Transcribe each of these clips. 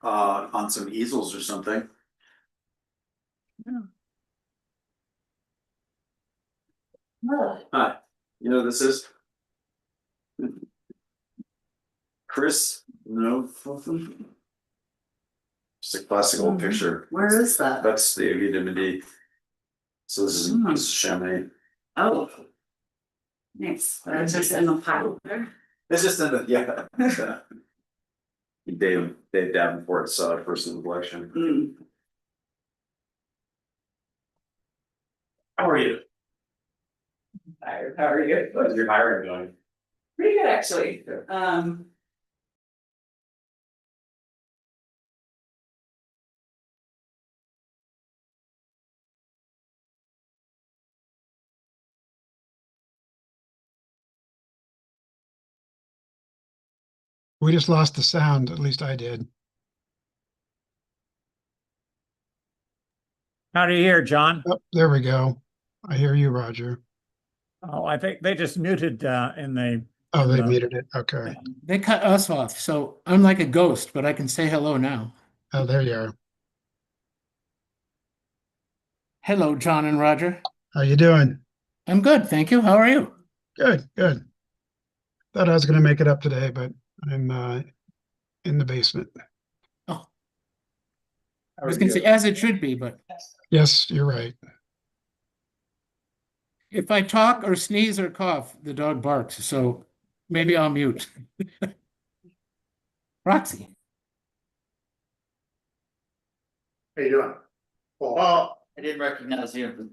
uh, on some easels or something. Hi, you know who this is? Chris, no. Just a classic old Mhm. picture. Where is that? That's the Ogden D. So this is, Hmm. this is Chamonix. Oh. Nice, that's just in the pile there. It's just in the, yeah. Dave, Dave Davenport saw it first in the collection. Hmm. How are you? Tired, how are you? How's your hiring going? Pretty good, actually, um. We just lost the sound, at least I did. How do you hear, John? Oh, there we go. I hear you, Roger. Oh, I think they just muted uh in the, Oh, they No. muted it. Okay. They cut us off, so I'm like a ghost, but I can say hello now. Oh, there you are. Hello, John and Roger. How you doing? I'm good, thank you. How are you? Good, good. Thought I was gonna make it up today, but I'm uh in the basement. I was gonna say, as it should be, but Yes, you're right. if I talk or sneeze or cough, the dog barks, so maybe I'll mute. Roxy, How you doing? Oh, I didn't recognize you.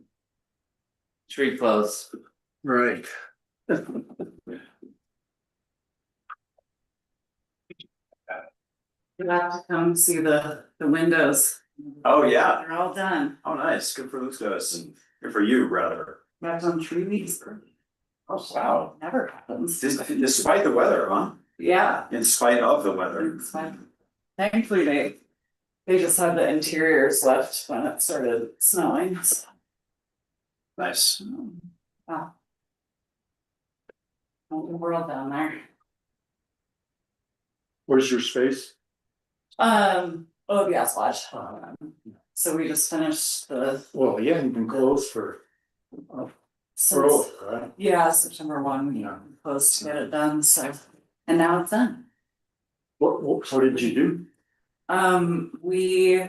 Tree clothes. Right. You'll have to come see the, the windows. Oh, yeah. They're all done, Oh, nice. Good for those guys and good for you, rather. left on tree leaves, early. Oh, wow. never happens. Dis- Despite the weather, huh? Yeah. In spite of the weather. it's fine. Thankfully, they, they just had the interiors left when it started snowing, so. Nice. Wow. Whole world down there. Where's your space? Um, oh, yeah, it's lodge. Uh-huh. Um, So we just finished the. Well, yeah, you've been closed for, for since- over, right? Yeah, September one, we Yeah. closed to get it done, so, and now it's done. What, what, what did you do? Um, we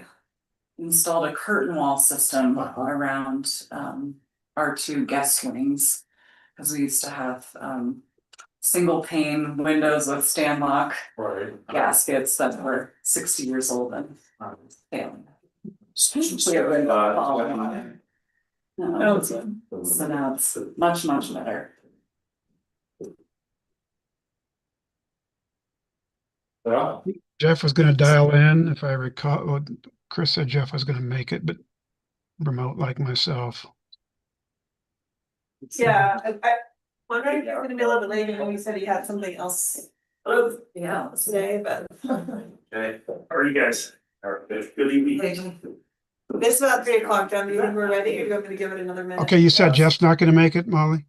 installed a curtain wall system Uh-huh. around um our two guest wings. Cause we used to have um single pane windows with stand lock Right. gaskets that were sixty years old and failing. Especially a window. Uh, No, it's- So now it's much, much better. Yeah, Jeff was gonna dial in if I recall. well, Chris said Jeff was gonna make it, but remote like myself. Yeah, I, I wondering if he's gonna be a little bit later, when he said he had something else Yeah. today, but Okay. how are you guys? All right. Good evening. it's about three o'clock, John, do you think we're ready, or do you want me to give it another minute? Okay, you said Jeff's not gonna make it, Molly?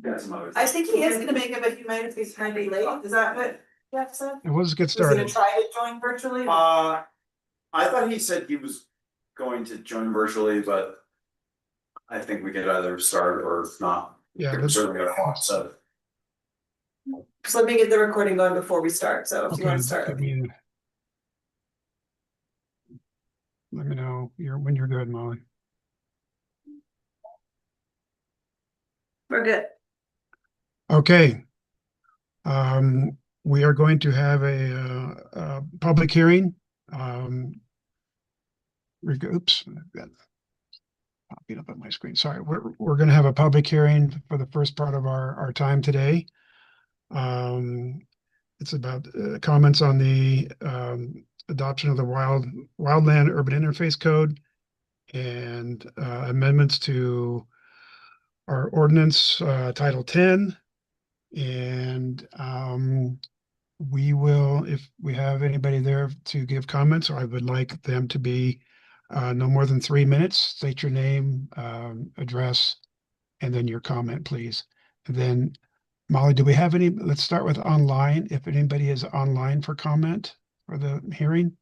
Got some other I think he is gonna make it, but he might if he's trying to be late, is that what Jeff said? Well, Let's get He's gonna started. try to join virtually? Uh, I thought he said he was going to join virtually, but I think we could either start or not. Yeah, We're let's- Certainly gonna watch, so. So let me get the recording going before we start, so if you okay. wanna start. I mean- Let me know you're when you're good, Molly. We're good. Okay. Um, we are going to have a, uh, uh, public hearing, um. reg- Oops, I've got. Popping up on my screen. Sorry, we're, we're gonna have a public hearing for the first part of our, our time today. Um, it's about, uh, comments on the, um, adoption of the wild, wildland urban interface code. And, uh, amendments to our ordinance, uh, Title ten. And, um, we will, if we have anybody there to give comments, I would like them to be, uh, no more than three minutes. State your name, um, address, and then your comment, please. And Then, Molly, do we have any, let's start with online, if anybody is online for comment for the hearing?